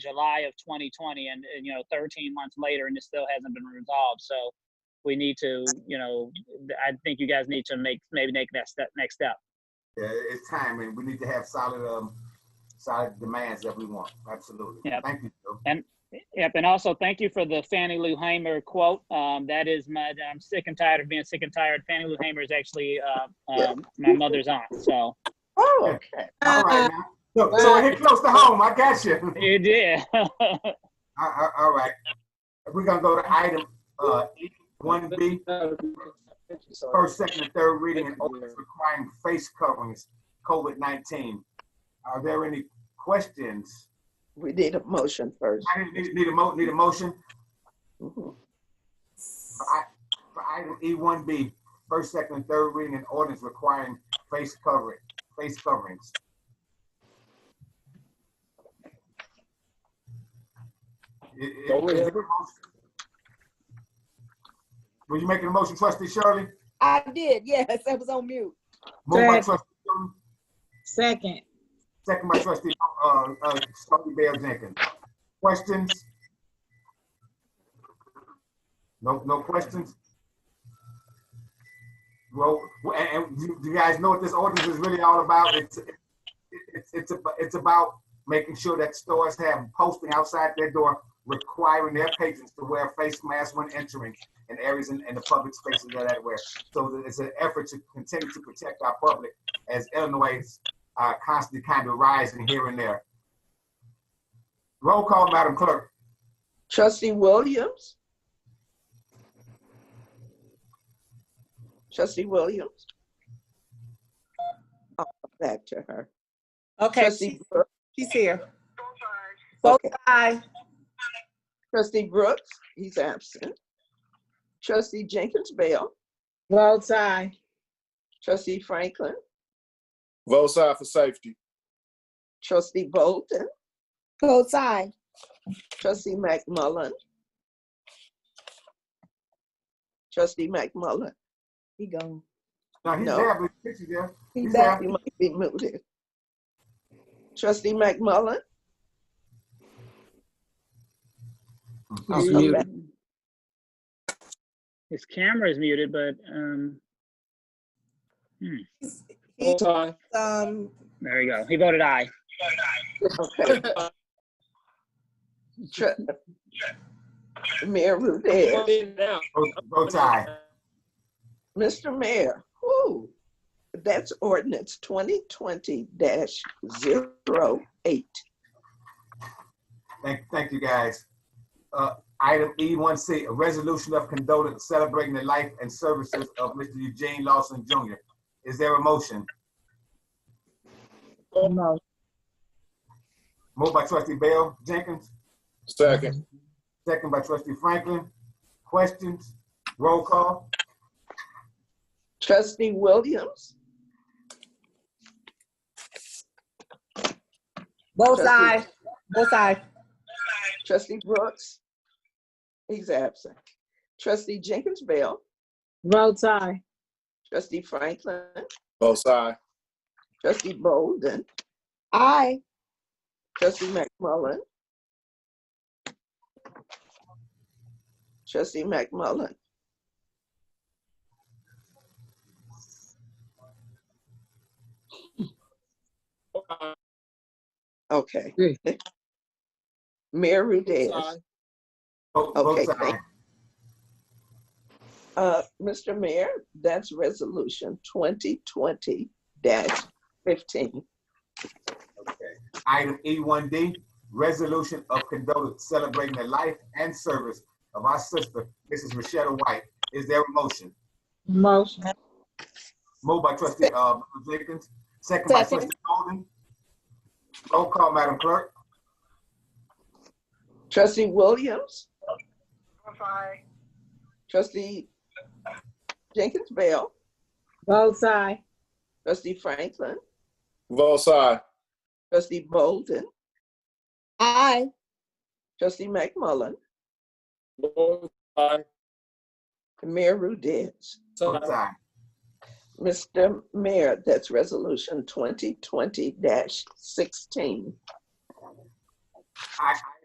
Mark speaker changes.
Speaker 1: July of 2020, and, and you know, 13 months later, and it still hasn't been resolved. So we need to, you know, I think you guys need to make maybe make that step next step.
Speaker 2: Yeah, it's time, and we need to have solid, um, solid demands that we want. Absolutely.
Speaker 1: Yep.
Speaker 2: Thank you, Joe.
Speaker 1: Yep, and also thank you for the Fannie Lou Hamer quote. Um, that is my, I'm sick and tired of being sick and tired. Fannie Lou Hamer is actually uh, um, my mother's aunt. So
Speaker 3: Oh, okay.
Speaker 2: All
Speaker 4: Uh,
Speaker 2: right, now. Look, so we're here close to home. I got you.
Speaker 1: you did.
Speaker 2: All- all- all right. We're gonna go to item, uh, one B. first, second, and third reading and ordinance requiring face coverings, COVID-19. Are there any questions?
Speaker 3: We need a motion first.
Speaker 2: I didn't need, need a mo, need a motion
Speaker 3: Mhm.
Speaker 2: for I, for item E one B, first, second, and third reading and ordinance requiring face covering, face coverings. I- i-
Speaker 5: Don't we
Speaker 2: is
Speaker 5: have
Speaker 2: there a motion? Were you making a motion, trustee Shirley?
Speaker 4: I did, yes, I was on mute.
Speaker 2: Moved by
Speaker 6: Second.
Speaker 2: trustee Shirley,
Speaker 6: Second.
Speaker 2: second by trustee, uh, uh, trustee Bell Jenkins. Questions? No, no questions? Well, and, and you, you guys know what this ordinance is really all about? It's, it's, it's, ab- it's about making sure that stores have posting outside their door requiring their patrons to wear face masks when entering in areas in, in the public spaces that that wear. So that it's an effort to continue to protect our public as Illinois uh, constantly kind of rising here and there. Roll call, Madam Clerk.
Speaker 3: Trustee Williams? Trustee Williams? Oh, Back to her.
Speaker 6: Okay,
Speaker 3: Trustee,
Speaker 6: she-
Speaker 3: Brooks-
Speaker 6: she's here.
Speaker 3: okay,
Speaker 6: Aye.
Speaker 3: trustee Brooks, he's absent. Trustee Jenkins Bell,
Speaker 6: Votes aye.
Speaker 3: trustee Franklin,
Speaker 5: Vote side for safety.
Speaker 3: trustee Bolden,
Speaker 4: Both aye.
Speaker 3: trustee McMullen. Trustee McMullen,
Speaker 4: He gone.
Speaker 2: Now, he's
Speaker 3: No.
Speaker 2: there, but he's there.
Speaker 4: He
Speaker 2: He's
Speaker 4: back.
Speaker 3: you might be muted. Trustee McMullen.
Speaker 2: Oh,
Speaker 3: you come back.
Speaker 1: His camera is muted, but um,
Speaker 4: He,
Speaker 5: aye.
Speaker 4: um,
Speaker 1: there you go. He voted aye.
Speaker 3: Okay. Tr- Mayor Rudez,
Speaker 2: Vote- Vote aye.
Speaker 3: Mr. Mayor, whoo, that's ordinance twenty twenty 8
Speaker 2: Thank, thank you, guys. Uh, Item E1C, a resolution of condolence celebrating the life and services of Mr. Eugene Lawson Jr. Is there a motion?
Speaker 6: No.
Speaker 2: Moved by trustee Bell Jenkins,
Speaker 5: Second.
Speaker 2: second by trustee Franklin. Questions? Roll call?
Speaker 3: Trustee Williams,
Speaker 6: Votes
Speaker 3: Trustee-
Speaker 6: aye. Votes aye.
Speaker 3: trustee Brooks, he's absent. Trustee Jenkins Bell,
Speaker 6: Votes aye.
Speaker 3: trustee Franklin,
Speaker 5: Vote side.
Speaker 3: trustee Bolden,
Speaker 4: aye.
Speaker 3: trustee McMullen. Trustee McMullen. Okay.
Speaker 6: Yeah.
Speaker 3: Mayor Rudez,
Speaker 2: Vote vote
Speaker 3: Okay,
Speaker 2: aye.
Speaker 3: great. uh, Mr. Mayor, that's resolution twenty twenty fifteen.
Speaker 2: Item E1D, resolution of condolence celebrating the life and service of our sister, Mrs. Rochetta White. Is there a motion?
Speaker 6: Motion.
Speaker 2: Moved by trustee, uh, Jenkins, second by
Speaker 4: Second.
Speaker 2: trustee Golden. Roll call, Madam Clerk.
Speaker 3: Trustee Williams? Trustee Jenkins Bell,
Speaker 6: Votes aye.
Speaker 3: trustee Franklin,
Speaker 5: Vote side.
Speaker 3: trustee Bolden,
Speaker 4: Aye.
Speaker 3: trustee McMullen,
Speaker 5: Vote aye.
Speaker 3: and Mayor Rudis.
Speaker 2: Votes aye.
Speaker 3: Mr. Mayor, that's resolution twenty twenty sixteen.
Speaker 2: I,